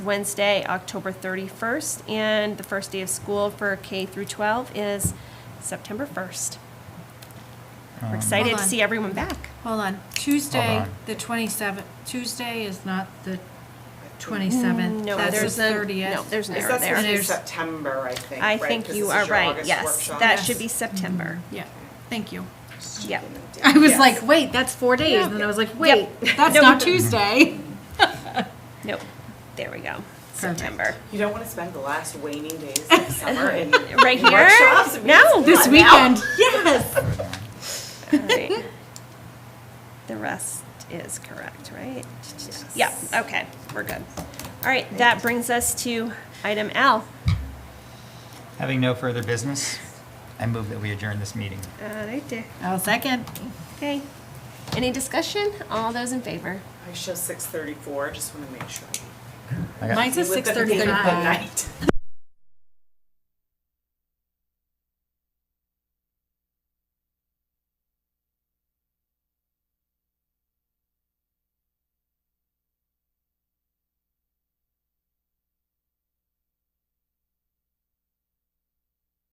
Wednesday, October 31st, and the first day of school for K through 12 is September 1st. We're excited Um, Hold to on. see everyone back. Hold on, Tuesday, Hold on. the 27th, Tuesday is not the 27th. No, That's there's the no- No, 30th. there's an Is error that supposed there. to be There's- September, I think, I right? think 'Cause you this are is your right, August yes. workshop. That Yes. should be September. Yeah, thank you. Yep. I was Yes. like, wait, that's four days, and then I was like, wait, that's No. not Tuesday. Mm-hmm. Nope. There we go. September. You don't want to spend the last waning days of summer in Right in here? workshops? I mean, No. it's This not now. weekend, yes. All right. The rest is correct, right? Yeah, okay, we're good. All right, that brings us to item L. Um, Having no further business, I move that we adjourn this meeting. All righty. I'll second. Okay. Any discussion? All those in favor? I show six thirty-four, just want to make sure. I got- Mine's a With the- with the 6:35. night.